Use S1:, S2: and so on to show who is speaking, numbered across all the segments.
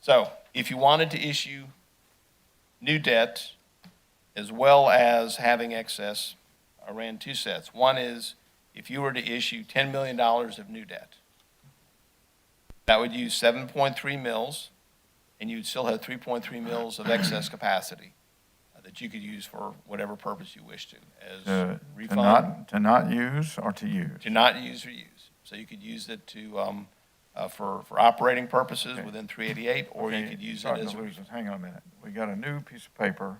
S1: So if you wanted to issue new debt as well as having excess, I ran two sets. One is if you were to issue $10 million of new debt, that would use 7.3 mils, and you'd still have 3.3 mils of excess capacity uh, that you could use for whatever purpose you wish to, as
S2: Uh, To to
S1: refund,
S2: not, to not use or to use?
S1: to not use or use. So you could use it to, um, uh, for, for operating purposes
S2: Okay.
S1: within 388, or you
S2: Okay,
S1: could use it
S2: starting
S1: as a
S2: to
S1: refund.
S2: lose us. Hang on a minute. We got a new piece of paper,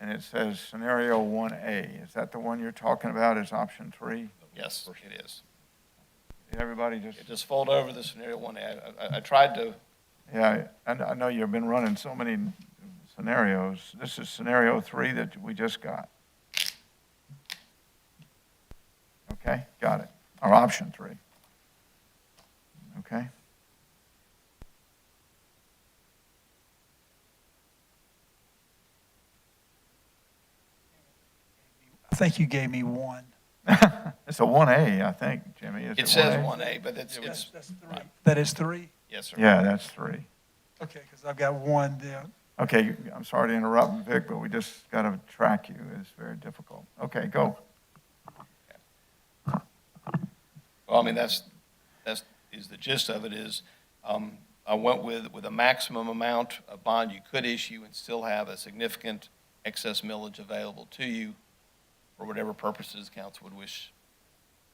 S2: and it says scenario one A. Is that the one you're talking about, is option three?
S1: Yes, it is.
S2: Did everybody just,
S1: It Just fold over the scenario one. I, I- I tried to,
S2: yeah, I, I know you've been running so many scenarios. This is scenario three that we just got. Okay, got it. Or option three. Okay?
S3: I think you gave me one.
S2: It's a one A, I think, Jimmy. Is
S1: it says
S2: 1A?
S1: one A, but it's, it's,
S3: That's three. That is three?
S1: yes, sir.
S2: Yeah, that's three.
S3: Okay, because I've got one there.
S2: Okay, I'm sorry to interrupt, Vic, but we just got to track you. It's very difficult. Okay, go.
S1: Well, I mean, that's, that's, is the gist of it is, um, I went with, with a maximum amount of bond you could issue and still have a significant excess millage available to you for whatever purposes council would wish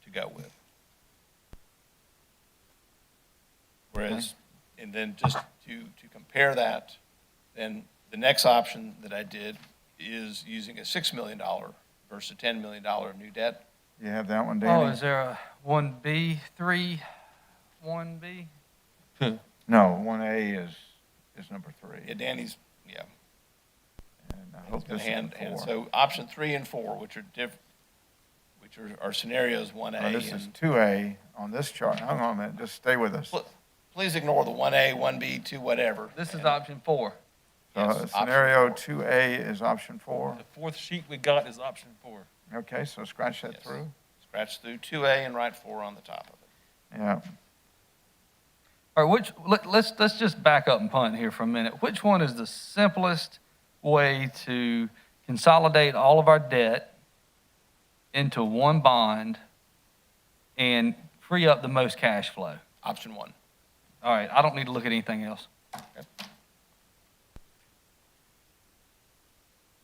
S1: to go with. Whereas, and then just to, to compare that, then the next option that I did is using a $6 million versus a $10 million new debt.
S2: You have that one,
S4: Oh,
S2: Danny?
S4: is there a one B, three, one B?
S2: No, one A is, is number
S1: Yeah,
S2: three.
S1: Danny's, yeah.
S2: And I
S1: It's
S2: hope
S1: gonna
S2: this
S1: hand,
S2: is
S1: hand-
S2: four.
S1: so option three and four, which are diff, which are, are scenarios one A.
S2: Now, Oh, This is
S1: and
S2: two A on this chart. Hang on a minute, just stay with us.
S1: pl- Please ignore the one A, one B, two, whatever.
S4: This is
S1: And-
S4: option four.
S2: Uh,
S1: yes, option
S2: Scenario
S1: four.
S2: two A is option four.
S5: The fourth sheet we got is option four.
S2: Okay, so scratch that
S1: Yes.
S2: through.
S1: Scratch through two A and write four on the top of it.
S2: Yeah,
S4: All right, which, let, let's, let's just back up and punt here for a minute. Which one is the simplest way to consolidate all of our debt into one bond and free up the most cash flow?
S1: Option one.
S4: All right, I don't need to look at anything else.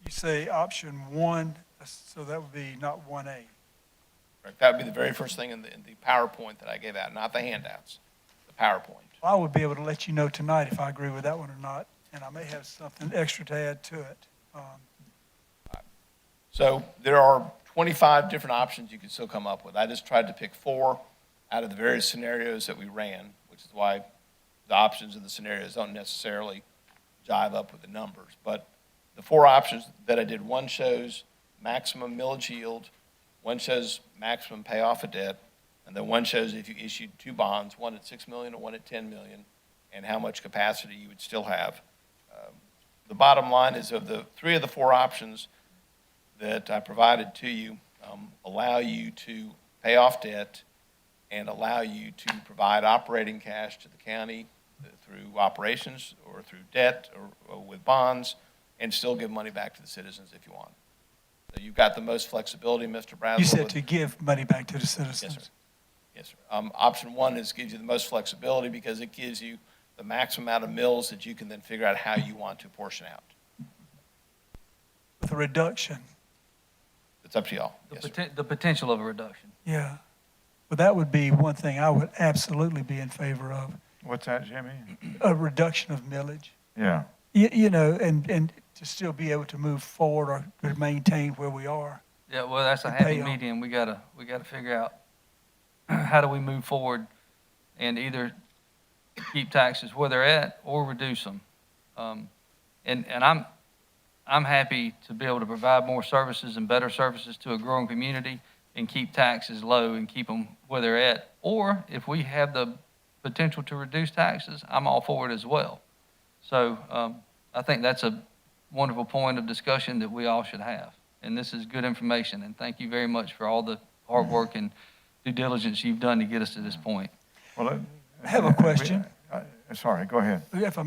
S3: You say option one, so that would be not one A.
S1: Correct. That would be the very first thing in the, in the PowerPoint that I gave out, not the handouts, the PowerPoint.
S3: I would be able to let you know tonight if I agree with that one or not, and I may have something extra to add to it. Um,
S1: So there are 25 different options you can still come up with. I just tried to pick four out of the various scenarios that we ran, which is why the options and the scenarios don't necessarily jive up with the numbers. But the four options that I did, one shows maximum millage yield, one shows maximum payoff of debt, and then one shows if you issued two bonds, one at 6 million and one at 10 million, and how much capacity you would still have. Um, The bottom line is of the, three of the four options, that I provided to you um, allow you to pay off debt and allow you to provide operating cash to the county uh, through operations or through debt or- or with bonds and still give money back to the citizens if you want. So you've got the most flexibility, Mr. Brazel.
S3: You said
S1: with-
S3: to give money back to the citizens.
S1: Yes, sir. Yes, sir. Um, Option one is gives you the most flexibility because it gives you the maximum amount of mills that you can then figure out how you want to portion out.
S3: With a reduction,
S1: It's up to y'all.
S4: The
S1: Yes, sir.
S4: poten- The potential of a reduction.
S3: yeah. But that would be one thing I would absolutely be in favor of,
S2: what's that, Jimmy?
S3: a reduction of millage.
S2: Yeah,
S3: You, you know, and, and to still be able to move forward or to maintain where we are.
S4: Yeah, well, that's a
S3: The
S4: happy
S3: payoff.
S4: medium. We gotta, we gotta figure out how do we move forward and either keep taxes where they're at or reduce them. Um, and, and I'm, I'm happy to be able to provide more services and better services to a growing community and keep taxes low and keep them where they're at. Or if we have the potential to reduce taxes, I'm all for it as well. So, um, I think that's a wonderful point of discussion that we all should have. And this is good information, and thank you very much for all the hard work and due diligence you've done to get us to this point.
S2: well. it-
S3: I have a
S2: we-
S3: question.
S2: I- Sorry, go ahead.
S3: If I